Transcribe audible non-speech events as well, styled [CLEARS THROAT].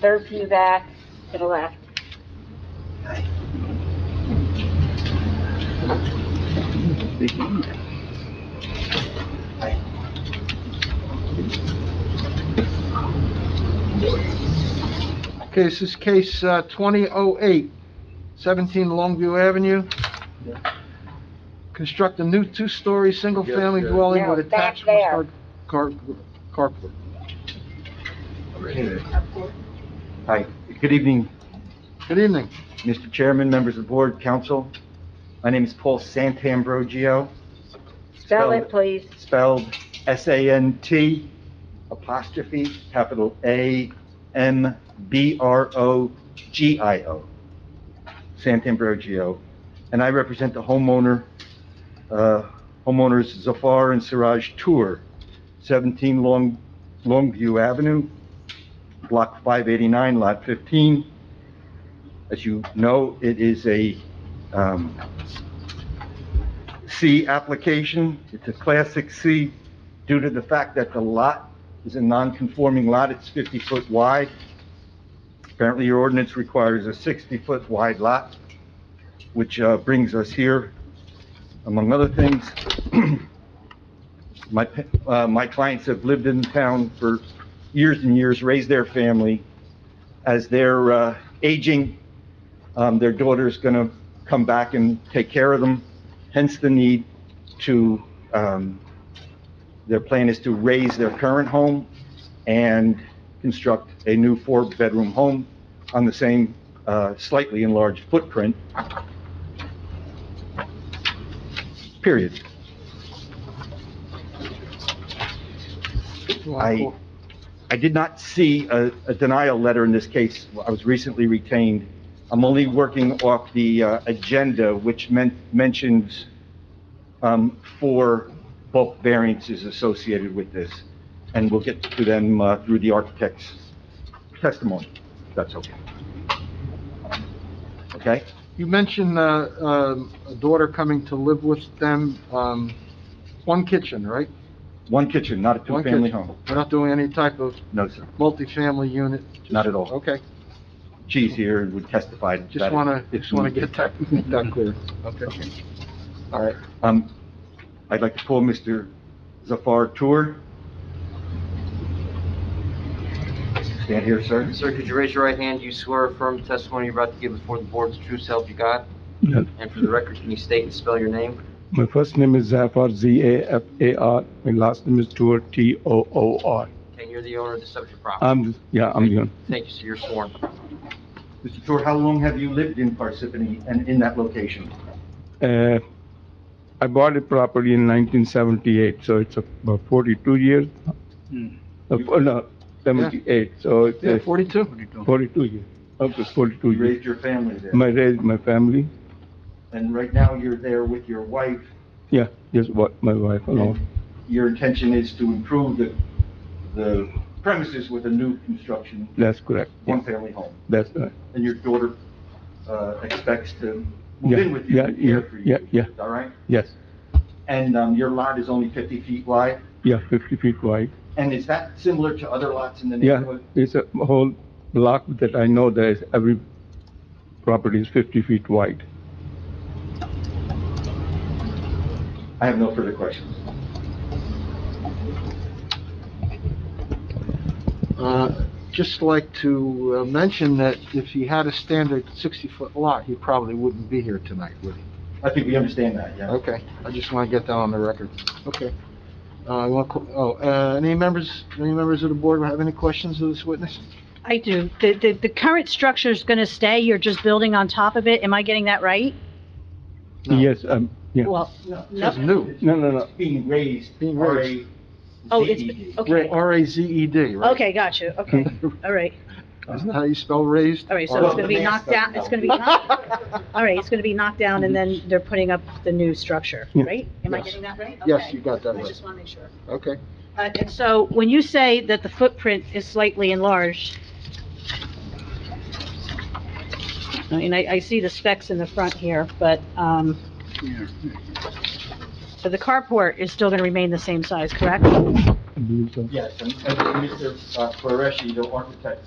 third pew back, to the left. Okay, this is case uh, 2008, 17 Longview Avenue. Construct a new two-story, single-family Yeah, yeah. dwelling No, with back attached car, there. car, carport. Hi, good evening, Good evening. Mr. Chairman, members of the board, council. My name is Paul Santambrogio, Spell Spell it, it. please. spelled S-A-N-T apostrophe capital A-M-B-R-O-G-I-O. Santambrogio. And I represent the homeowner, uh, homeowners Zafar and Siraj Tour, 17 Long Longview Avenue, Block 589, Lot 15. As you know, it is a um, C application. It's a classic C due to the fact that the lot is a non-conforming lot. It's 50-foot wide. Apparently, your ordinance requires a 60-foot wide lot, which uh, brings us here, among other things. [CLEARS THROAT] My, pa- uh, my clients have lived in town for years and years, raised their family. As they're uh, aging, um, their daughter's going to come back and take care of them, hence the need to, um, their plan is to raise their current home and construct a new four-bedroom home on the same uh, slightly enlarged footprint. Period. I, I did not see a, a denial letter in this case. I was recently retained. I'm only working off the, uh, agenda, which men mentions, um, four bulk variances associated with this. And we'll get to them, uh, through the architect's testimony, if that's okay. Okay? You mentioned, uh, um, a daughter coming to live with them, um, one kitchen, right? One kitchen, not a One two-family kitchen. home. We're not doing any type of No, sir, multifamily unit? not at all. Okay, She's here and would testify. to just that wanna, if just wanna needed. get that, [LAUGHS] make that clear. Okay. All right. Um, I'd like to pull Mr. Zafar Tour. Stand here, sir. Sir, could you raise your right hand? You swear or affirm the testimony you're about to give before the board's true self you got? Yes. And for the record, can you state and spell your name? My first name is Zafar, Z-A-F-A-R. My last name is Toor, T-O-O-R. Okay, and you're the owner of the subject property. I'm, yeah, I'm the owner. Thank you, sir, you're sworn. Mr. Tour, how long have you lived in Parsippany and in that location? Uh, I bought a property in 1978, so it's about 42 years. Hmm. Uh, oh, No, 78, so it's Yeah, uh, forty-two? 42 years, up to 42 You years. raised your family there, My, raised my family, and right now you're there with your wife. yeah, just what, my wife alone. Your intention is to improve the, the premises with a new construction, That's correct, yeah, one-family home. that's right. And your daughter, uh, expects to move Yeah, in with you yeah, and care yeah, for you. yeah, yeah. Is that right? Yes, And, um, your lot is only fifty feet wide? yeah, 50 feet wide. And is that similar to other lots in the Yeah, neighborhood? it's a whole block that I know there is, every property is 50 feet wide. I have no further questions. Uh, Just like to uh, mention that if he had a standard 60-foot lot, he probably wouldn't be here tonight, would he? I think we understand that, yeah. Okay, I just want to get that on the record. Okay. Uh, you want to cl- Oh, uh, any members, any members of the board have any questions of this witness? I do. The, the, the current structure is gonna stay, you're just building on top of it, am I getting that right? No. Yes, um, yeah. Well, It's new. No, no, no. It's Being raised. Being raised. oh, it's, R.A.Z.E.D.. Ra- okay, R-A-Z-E-D, E right? [LAUGHS] Hmm. okay, got you, okay, all right, Isn't that how you spell raised? all right, so Well, it's gonna be the next knocked down, step it's E gonna [LAUGHS] be, knocked- [LAUGHS] all right, it's gonna be knocked down, and then they're putting up the new structure, Yeah. right? Am I Mm-hmm. Yes. getting that right? Yes, Okay. you got that I right. just wanna make sure. Okay. Uh, and so, when you say that the footprint is slightly enlarged, I mean, I, I see the specs in the front here, but, um, so the carport is still gonna remain the same size, correct? I believe so. Yes, and and Mr. uh, Qureshi, the architect,